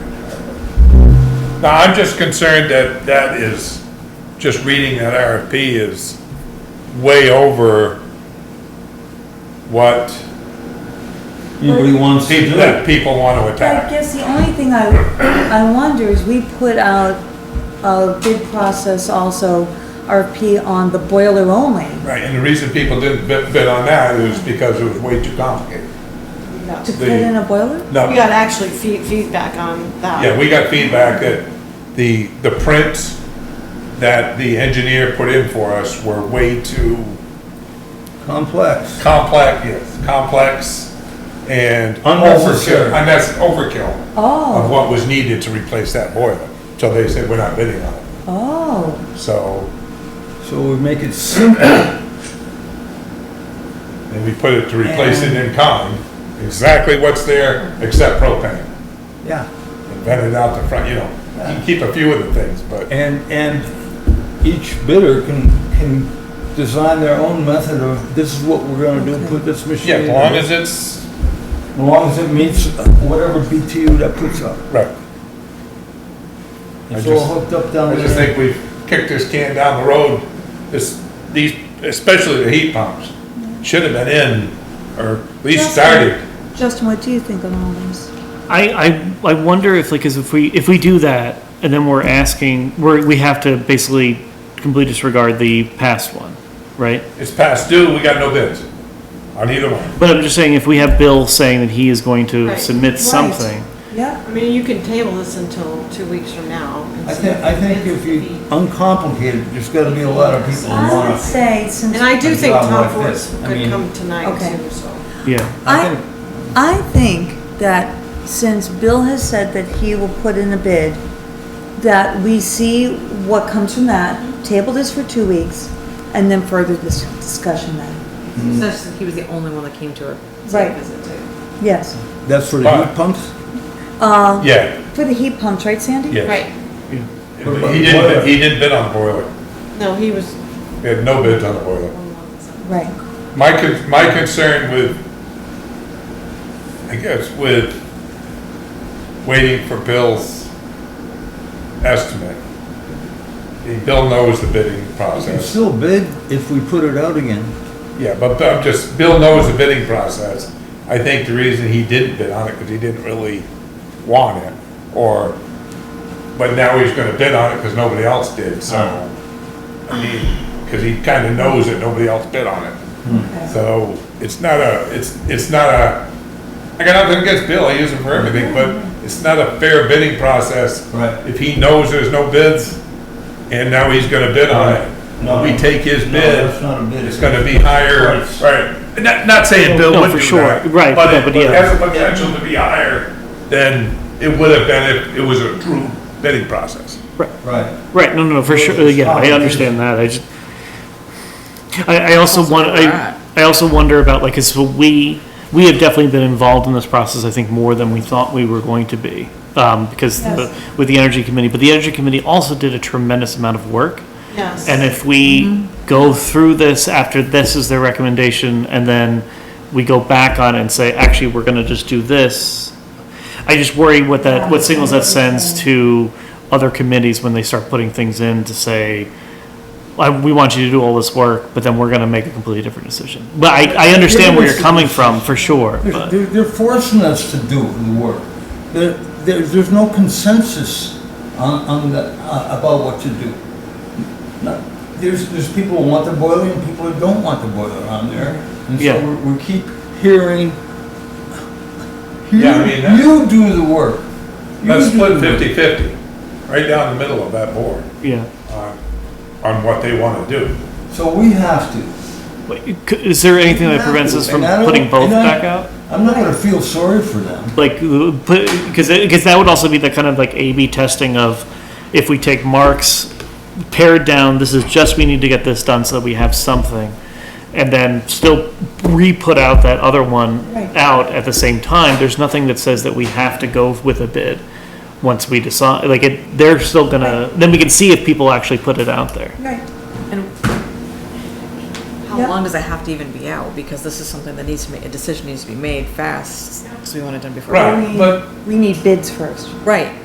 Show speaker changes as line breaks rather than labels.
No, I'm just concerned that that is, just reading that RFP is way over what
Anybody wants to
people,
do it?
that people want to
I
attack.
guess the only thing I, I wonder is we put out a bid process also, RFP on the boiler only.
Right, and the reason people didn't bid, bid on that is because it was way too complicated.
No.
To put in a boiler?
No,
We got actually feed, feedback on that.
yeah, we got feedback that the, the prints that the engineer put in for us were way too
Complex.
complex, yes, complex and.
Unnecessary.
overkill- unnec- Overkill. of
Oh,
what was needed to replace that boiler. So they said, we're not bidding on it.
oh,
So,
So we make it simple.
and we put it to replace it in kind, exactly what's there except propane.
Yeah.
And vent it out the front, you know, you can keep a few of the things, but,
And, and each bidder can, can design their own method of, this is what we're gonna do, put this machine.
yeah, as
in.
long as it's,
As long as it meets whatever BTU that puts up.
right. I
It's
just-
all hooked up down
I
there.
just think we've kicked this can down the road. This, these, especially the heat pumps, should have been in, or at least
Yes.
started.
Justin, what do you think of all this?
I, I, I wonder if like, 'cause if we, if we do that and then we're asking, we're, we have to basically completely disregard the past one, right?
It's past due, we got no bids on either one.
But I'm just saying if we have Bill saying that he is going to
Right.
submit
Right.
something,
Yeah,
I mean, you can table this until two weeks from now. and
I
see
think, I think
bids
if
will
you,
be-
uncomplicated, there's gotta be a lot of people who
I
wanna.
would say since,
And I do
A
think
job
Tom
like
Force
this, I mean-
could come tonight
Okay.
too, so.
yeah.
I
I, I think that since Bill has said that he will put in a bid, that we see what comes from that, table this for two weeks, and then further this discussion then.
Mm.
Especially he was the only one that came to a
Right.
site visit too.
Yes.
That's for the heat pumps?
Uh,
Yeah,
for the heat pumps, right Sandy?
yeah.
yeah.
He didn't, he didn't bid on the boiler.
No, he was.
We had no bids on the boiler.
Right.
My, con- my concern with, I guess, with waiting for Bill's estimate. and Bill knows the bidding
We can
process.
still bid if we put it out again.
Yeah, but I'm just, Bill knows the bidding process. I think the reason he didn't bid on it, because he didn't really want it, or, but now he's gonna bid on it because nobody else did, so. I mean, because he kind of knows that nobody else bid on it.
Hmm.
So it's not a, it's, it's not a, I got nothing against Bill, I use him for everything, but it's not a fair bidding process.
Right.
If he knows there's no bids, and now he's gonna bid on
No.
it, we take his
No,
bid.
that's not a bid.
It's gonna be higher,
Price.
right, not, not saying Bill
No,
would
for
do
sure.
that.
Right,
But
no,
it
but
but
yeah.
it has the potential to be higher than it would have been if it was a true bidding process.
Right.
Right, no, no, no, for sure, uh, yeah, I understand that, I just, I, I also want, I, I also wonder about, like, 'cause so we, we have definitely been involved in this process, I think, more than we thought we were going to be, um, because
Yes.
the- with the Energy Committee, but the Energy Committee also did a tremendous amount of work,
Yes.
and if we go through this after this is their recommendation, and then we go back on it and say, actually, we're gonna just do this, I just worry what that, what signals that sends to other committees when they start putting things in to say, I, we want you to do all this work, but then we're gonna make a completely different decision. But I, I understand where you're coming from, for sure,
They're,
but,
they're- they're forcing us to do the work. There, there, there's no consensus on, on the, uh, about what to do. No- There's, there's people who want the boiler and people who don't want the boiler on there. And
Yeah.
so we, we keep hearing, you,
Yeah, I mean, that's-
you do the work. You
Let's
do
split
the work."
fifty-fifty, right down the middle of that board,
yeah.
on, on what they wanna do.
So we have to.
But c- Is there anything that prevents us from
And I don't-
putting both
and I-
back out?
I'm not gonna feel sorry for them.
like because because that would also be the kind of like A/B testing of if we take marks pared down. This is just we need to get this done so that we have something, and then still re-put out that other one
Right.
out at the same time. There's nothing that says that we have to go with a bid once we decide. Like it, they're still gonna. Then we can see if people actually put it out there.
Right. Yeah.
How long does it have to even be out? Because this is something that needs to make, a decision needs to be made fast, because we want it done before.
Right.
We-
but-
We need bids first.
Right,